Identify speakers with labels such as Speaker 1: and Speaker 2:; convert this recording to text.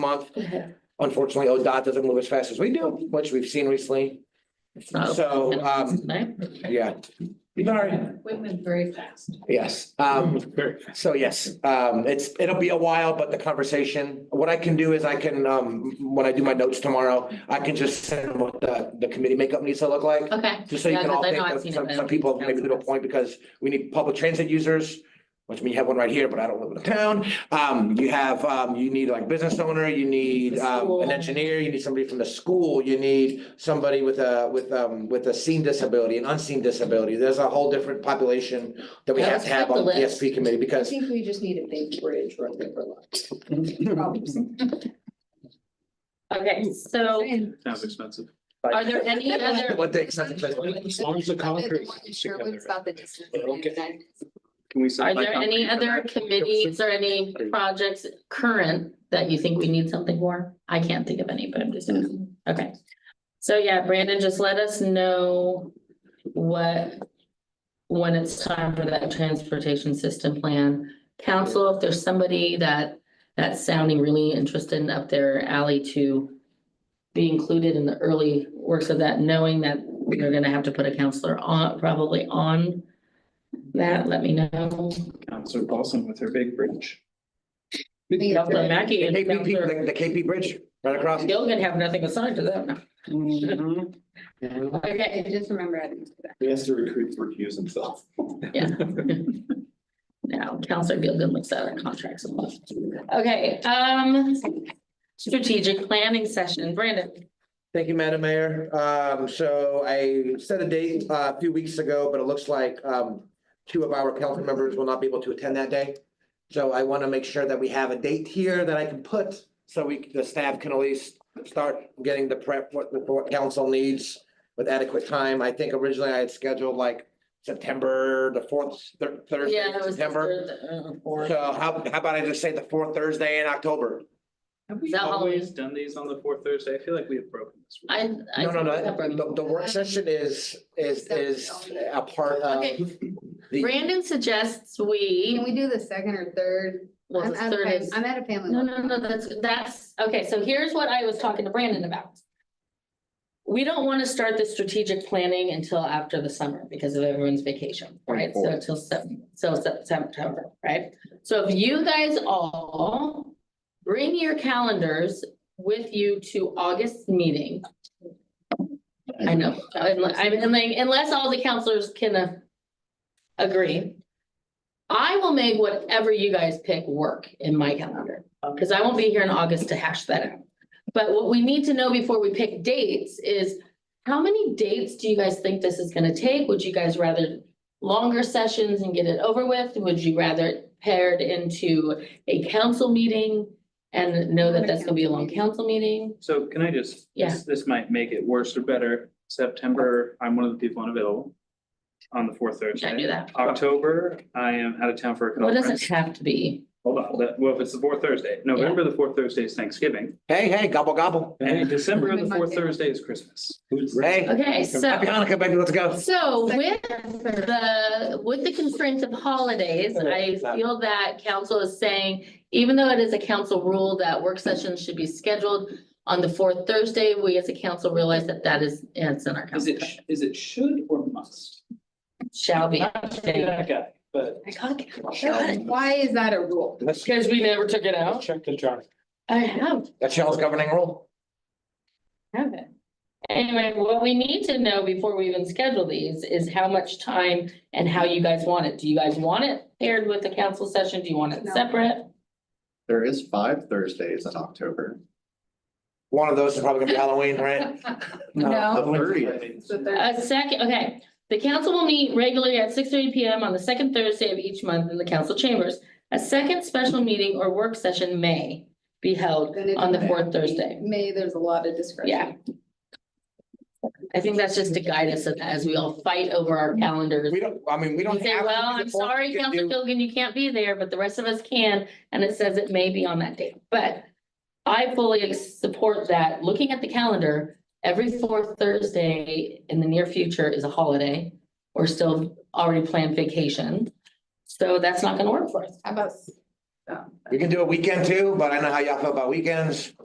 Speaker 1: month. Unfortunately, ODOT doesn't move as fast as we do, which we've seen recently.
Speaker 2: It's not.
Speaker 1: So, um,
Speaker 2: Right?
Speaker 1: yeah. Sorry.
Speaker 3: We went very fast.
Speaker 1: Yes, um, so yes, um, it's, it'll be a while, but the conversation, what I can do is I can, um, when I do my notes tomorrow, I can just send what the, the committee makeup needs to look like.
Speaker 2: Okay.
Speaker 1: Just so you
Speaker 2: Yeah,
Speaker 1: can
Speaker 2: 'cause
Speaker 1: all
Speaker 2: I
Speaker 1: think,
Speaker 2: know I've
Speaker 1: of
Speaker 2: seen it,
Speaker 1: some,
Speaker 2: but I
Speaker 1: some
Speaker 2: don't
Speaker 1: people
Speaker 2: think
Speaker 1: maybe
Speaker 2: it's
Speaker 1: little point, because we need public transit users, which means you have one right here, but I don't live in the town. Um, you have, um, you need like business owner, you need,
Speaker 2: The
Speaker 1: um, an
Speaker 2: school.
Speaker 1: engineer, you need somebody from the school, you need somebody with a, with, um, with a seen disability, an unseen disability. There's a whole different population that we
Speaker 2: Yeah,
Speaker 1: have to
Speaker 2: let's
Speaker 1: have
Speaker 2: cut
Speaker 1: on
Speaker 2: the
Speaker 1: the PSP committee
Speaker 3: I
Speaker 1: because
Speaker 3: think we just need a big bridge or a river line.
Speaker 2: Okay, so
Speaker 4: Sounds expensive.
Speaker 2: are there any other?
Speaker 1: what they. Can
Speaker 4: As long as the concrete is together. Okay. Can we?
Speaker 2: Are there any other committees or any projects current that you think we need something for? I can't think of any, but I'm just, asking. okay. So yeah, Brandon, just let us know what, when it's time for that transportation system plan. Council, if there's somebody that, that's sounding really interested and up their alley to be included in the early works of that, knowing that we're gonna have to put a counselor on, probably on that, let me know.
Speaker 4: Counselor Paulson with her big bridge.
Speaker 2: Counselor Mackey
Speaker 1: The
Speaker 2: and
Speaker 1: KP,
Speaker 2: Counselor
Speaker 1: the KP bridge right across.
Speaker 2: Gilligan have nothing assigned to them. Mm-hmm.
Speaker 4: He
Speaker 3: Okay, I just remember adding to that.
Speaker 4: has to recruit for Hughes himself.
Speaker 2: Yeah. Now, Counselor Gilligan looks at our contracts and stuff. Okay, um, strategic planning session, Brandon.
Speaker 1: Thank you, Madam Mayor. Um, so I set a date uh, a few weeks ago, but it looks like, um, two of our council members will not be able to attend that day. So I want to make sure that we have a date here that I can put, so we, the staff can at least start getting the prep, what, what council needs with adequate time. I think originally I had scheduled like September, the fourth, thir- Thursday,
Speaker 2: Yeah,
Speaker 1: in
Speaker 2: that was the
Speaker 1: September.
Speaker 2: third, uh, fourth.
Speaker 1: So how, how about I just say the fourth Thursday in October?
Speaker 4: Have we
Speaker 2: That
Speaker 4: always
Speaker 2: Halloween.
Speaker 4: done these on the fourth Thursday? I feel like we have broken this. rule.
Speaker 2: I. I-
Speaker 1: No, no, no, the, the work session is, is, is a part of.
Speaker 2: Okay.
Speaker 1: the-
Speaker 2: Brandon suggests
Speaker 3: Can
Speaker 2: we,
Speaker 3: we do the second or third?
Speaker 2: well,
Speaker 3: I'm
Speaker 2: the
Speaker 3: at a
Speaker 2: third
Speaker 3: fam-
Speaker 2: is.
Speaker 3: I'm at a family.
Speaker 2: No,
Speaker 3: one.
Speaker 2: no, no, that's, that's, okay, so here's what I was talking to Brandon about. We don't wanna start the strategic planning until after the summer because of everyone's vacation, right? So till seven, so Sep- September, right? So if you guys all bring your calendars with you to August meeting. I know, unless, I mean, like, unless all the counselors can uh, agree. I will make whatever you guys pick work in my calendar, because I won't be here in August to hash that out. But what we need to know before we pick dates is, how many dates do you guys think this is gonna take? Would you guys rather longer sessions and get it over with? Would you rather it paired into a council meeting? And know that that's gonna be a long council meeting?
Speaker 4: So can I just?
Speaker 2: Yeah.
Speaker 4: this- This might make it worse or better. September, I'm one of the people unavailable on the fourth
Speaker 2: I
Speaker 4: Thursday.
Speaker 2: do that.
Speaker 4: October, I am out of town for a
Speaker 2: Well, it doesn't
Speaker 4: conference.
Speaker 2: have to be.
Speaker 4: Hold on, that- well, if it's the fourth Thursday, November, the fourth Thursday is Thanksgiving,
Speaker 1: Hey, hey, gobble, gobble.
Speaker 4: and December, the
Speaker 3: Remember
Speaker 4: fourth
Speaker 3: my-
Speaker 4: Thursday is Christmas.
Speaker 1: Hey,
Speaker 2: Okay, so.
Speaker 1: happy Hanukkah, baby, let's go.
Speaker 2: So with the, with the constraints of holidays, I feel that council is saying, even though it is a council rule that work sessions should be scheduled on the fourth Thursday, we as a council realize that that is, it's in our
Speaker 4: Is
Speaker 2: council.
Speaker 4: it, sh- is it should or must?
Speaker 2: Shall be.
Speaker 4: Not that guy, but.
Speaker 3: Why is that a rule?
Speaker 1: Let's
Speaker 2: Because we never took it out.
Speaker 4: Check the jar.
Speaker 2: I have,
Speaker 1: That's y'all's governing rule.
Speaker 2: have it. Anyway, what we need to know before we even schedule these is how much time and how you guys want it. Do you guys want it paired with the council session? Do you want it
Speaker 3: No.
Speaker 2: separate?
Speaker 5: There is five Thursdays in October.
Speaker 1: One of those is probably gonna be Halloween, right?
Speaker 5: The
Speaker 3: No.
Speaker 5: thirtieth,
Speaker 3: The third-
Speaker 2: A second, okay. The council will meet regularly at six thirty P M on the second Thursday of each month in the council chambers. A second special meeting or work session may be held
Speaker 3: Then it
Speaker 2: on the
Speaker 3: doesn't
Speaker 2: fourth
Speaker 3: have to be
Speaker 2: Thursday.
Speaker 3: May, there's a lot of discretion.
Speaker 2: Yeah. I think that's just to guide us as we all fight over our calendars.
Speaker 1: We don't, I mean, we
Speaker 2: We
Speaker 1: don't.
Speaker 2: say,
Speaker 1: have to
Speaker 2: well,
Speaker 1: do
Speaker 2: I'm
Speaker 1: the fourth.
Speaker 2: sorry,
Speaker 1: We can
Speaker 2: Council
Speaker 1: do-
Speaker 2: Gilligan, you can't be there, but the rest of us can, and it says it may be on that date. But I fully support that. Looking at the calendar, every fourth Thursday in the near future is a holiday. We're still already planned vacation. So that's not gonna work for us.
Speaker 3: How about s-
Speaker 1: We can do a weekend too, but I know how y'all feel about weekends.